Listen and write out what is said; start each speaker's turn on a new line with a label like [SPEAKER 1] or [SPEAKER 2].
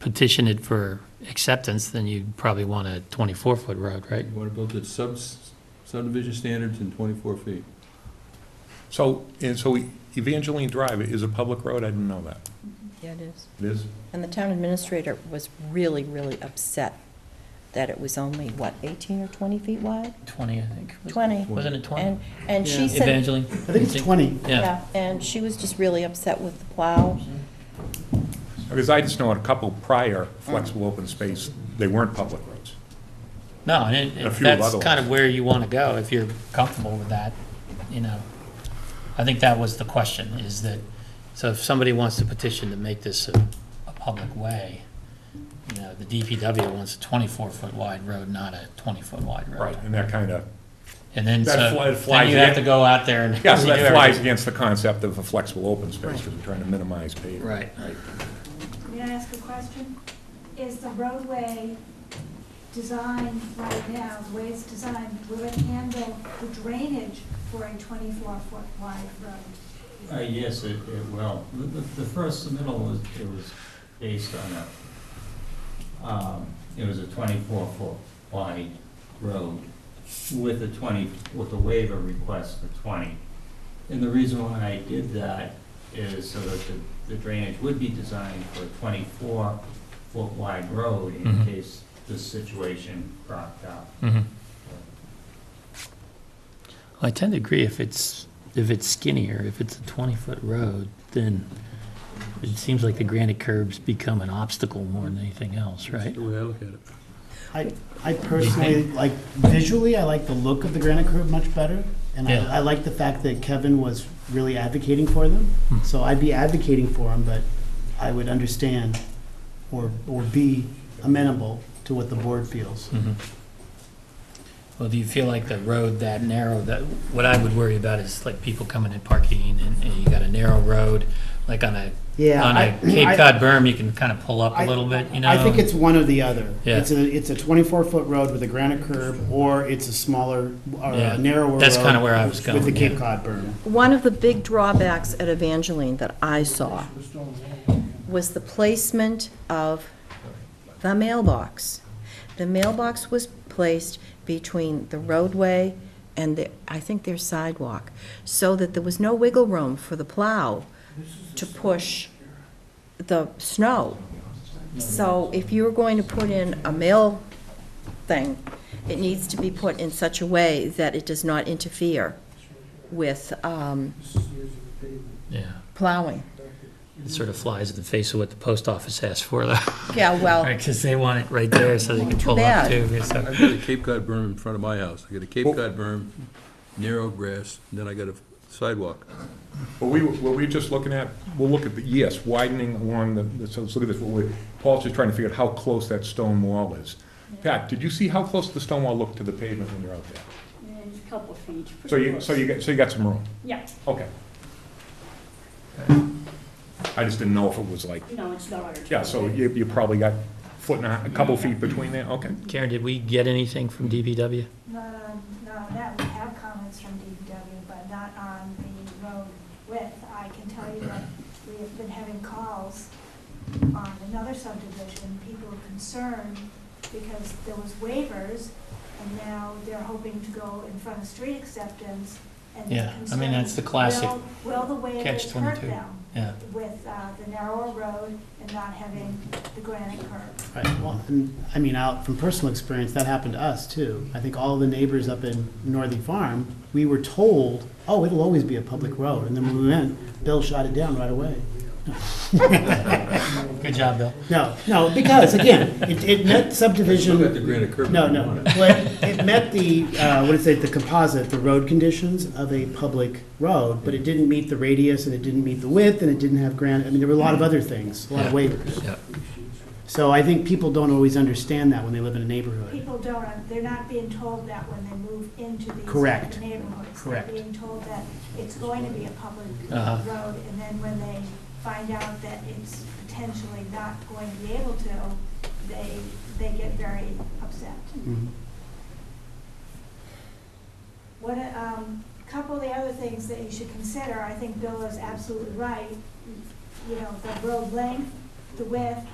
[SPEAKER 1] petition it for acceptance, then you'd probably want a 24-foot road, right?
[SPEAKER 2] You want to build it sub subdivision standards and 24 feet.
[SPEAKER 3] So, and so Evangeline Drive is a public road, I didn't know that.
[SPEAKER 4] Yeah, it is.
[SPEAKER 3] It is?
[SPEAKER 4] And the town administrator was really, really upset that it was only, what, 18 or 20 feet wide?
[SPEAKER 1] 20, I think.
[SPEAKER 4] 20.
[SPEAKER 1] Wasn't it 20?
[SPEAKER 4] And, and she said,
[SPEAKER 1] Evangeline?
[SPEAKER 5] I think it's 20.
[SPEAKER 1] Yeah.
[SPEAKER 4] yeah, and she was just really upset with the plow.
[SPEAKER 3] Because I just know a couple prior flexible open space, they weren't public roads.
[SPEAKER 1] No, and it-
[SPEAKER 3] A
[SPEAKER 1] it-
[SPEAKER 3] few of
[SPEAKER 1] that's
[SPEAKER 3] other
[SPEAKER 1] kind
[SPEAKER 3] ones.
[SPEAKER 1] of where you want to go, if you're comfortable with that, you know. I think that was the question, is that, so if somebody wants to petition to make this a, a public way, you know, the DPW wants a 24-foot wide road, not a 20-foot wide road.
[SPEAKER 3] And that kind of,
[SPEAKER 1] And then,
[SPEAKER 3] That fly-
[SPEAKER 1] so,
[SPEAKER 3] flies
[SPEAKER 1] then you have
[SPEAKER 3] again.
[SPEAKER 1] to go out there and.
[SPEAKER 3] yeah, so that
[SPEAKER 1] redo
[SPEAKER 3] flies
[SPEAKER 1] everything.
[SPEAKER 3] against the concept of a flexible open space, because we're trying to minimize pavement.
[SPEAKER 1] Right.
[SPEAKER 6] May I ask a question? Is the roadway designed right now, the way it's designed, will it handle the drainage for a 24-foot wide road?
[SPEAKER 7] Uh, yes, it, it will. The, the the first submittal was, it was based on a, um, it was a twenty-four foot wide road with a twenty, with a waiver request for twenty. And the reason why I did that is so that the- the drainage would be designed for a twenty-four foot wide road in
[SPEAKER 1] Mhm.
[SPEAKER 7] case this situation cropped up.
[SPEAKER 1] Mhm. I tend to agree, if it's, if it's skinnier, if it's a 20-foot road, then it seems like the granite curbs become an obstacle more than anything else, right?
[SPEAKER 2] The way I look at it.
[SPEAKER 5] I, I personally, like, visually, I like the look of the granite curb much better. And
[SPEAKER 1] Yeah.
[SPEAKER 5] I, I like the fact that Kevin was really advocating for them.
[SPEAKER 1] Hmm.
[SPEAKER 5] So I'd be advocating for them, but I would understand or, or be amenable to what the board feels.
[SPEAKER 1] Mhm. Well, do you feel like the road that narrow, that, what I would worry about is like people coming and parking, and and you got a narrow road, like on a,
[SPEAKER 5] Yeah.
[SPEAKER 1] on a
[SPEAKER 5] I- I-
[SPEAKER 1] Cape Cod berm, you can kind of pull up
[SPEAKER 5] I-
[SPEAKER 1] a little bit, you know?
[SPEAKER 5] I think it's one or the other.
[SPEAKER 1] Yeah.
[SPEAKER 5] It's a, it's a twenty-four foot road with a granite curb, or it's a smaller, or
[SPEAKER 1] Yeah,
[SPEAKER 5] a narrower
[SPEAKER 1] that's
[SPEAKER 5] road
[SPEAKER 1] kinda where I was
[SPEAKER 5] With the
[SPEAKER 1] going, yeah.
[SPEAKER 5] Cape Cod berm.
[SPEAKER 4] One of the big drawbacks at Evangeline that I saw was the placement of the mailbox. The mailbox was placed between the roadway and the, I think their sidewalk, so that there was no wiggle room for the plow to push the snow. So if you're going to put in a mail thing, it needs to be put in such a way that it does not interfere with um,
[SPEAKER 1] Yeah,
[SPEAKER 4] plowing.
[SPEAKER 1] it sort of flies in the face of what the post office asked for, though.
[SPEAKER 4] Yeah, well,
[SPEAKER 5] Oh.
[SPEAKER 1] Right, because they want it right there so they can
[SPEAKER 4] Too
[SPEAKER 1] pull up
[SPEAKER 4] bad.
[SPEAKER 1] too. so-
[SPEAKER 2] I've got a Cape Cod berm in front of my house. I got a Cape Cod berm, narrow grass, and then I got a sidewalk.
[SPEAKER 3] What we, what we're just looking at, we'll look at the, yes, widening along the, so let's look at this, what we, Paul's just trying to figure out how close that stone wall is. Pat, did you see how close the stone wall looked to the pavement when you're out there?
[SPEAKER 8] And a couple of feet.
[SPEAKER 3] So you, so you, got- so you got some room?
[SPEAKER 8] Yeah,
[SPEAKER 3] Okay. I just didn't know if it was like,
[SPEAKER 8] no, it's not.
[SPEAKER 3] yeah, so you, you probably got foot and a, a couple feet between there, okay.
[SPEAKER 1] Karen, did we get anything from DPW?
[SPEAKER 6] Not on, Um, no, that, we have comments from DPW, but not on the road width. I can tell you that we have been having calls on another subdivision, people are concerned because there was waivers, and now they're hoping to go in front of street acceptance, and
[SPEAKER 1] Yeah,
[SPEAKER 6] they're
[SPEAKER 1] I mean,
[SPEAKER 6] concerned.
[SPEAKER 1] that's the classic
[SPEAKER 6] will- Will the waivers hurt
[SPEAKER 1] catch-22.
[SPEAKER 6] them
[SPEAKER 1] Yeah.
[SPEAKER 6] with uh, the narrower road and not having the granite curb?
[SPEAKER 5] Right, well, and, I mean, out from personal experience, that happened to us too. I think all the neighbors up in Northern Farm, we were told, oh, it'll always be a public road, and then when we went, Bill shot it down right away.
[SPEAKER 1] Good job, Bill.
[SPEAKER 5] No, no, because again, it, it met subdivision.
[SPEAKER 2] Look at the granite curb.
[SPEAKER 5] No, no, well, it met the, uh, what is it, the composite, the road conditions of a public road, but it didn't meet the radius, and it didn't meet the width, and it didn't have granite, I mean, there were a lot of other things, a lot of waivers.
[SPEAKER 1] Yeah.
[SPEAKER 5] So I think people don't always understand that when they live in a neighborhood.
[SPEAKER 6] People don't, uh, they're not being told that when they move into these
[SPEAKER 5] Correct.
[SPEAKER 6] neighborhoods.
[SPEAKER 5] Correct.
[SPEAKER 6] They're being told that it's going to be a public
[SPEAKER 1] Uh-huh.
[SPEAKER 6] road, and then when they find out that it's potentially not going to be able to, they, they get very upset.
[SPEAKER 5] Mhm.
[SPEAKER 6] What, um, couple of the other things that you should consider, I think Bill is absolutely right. You know, the road length, the width,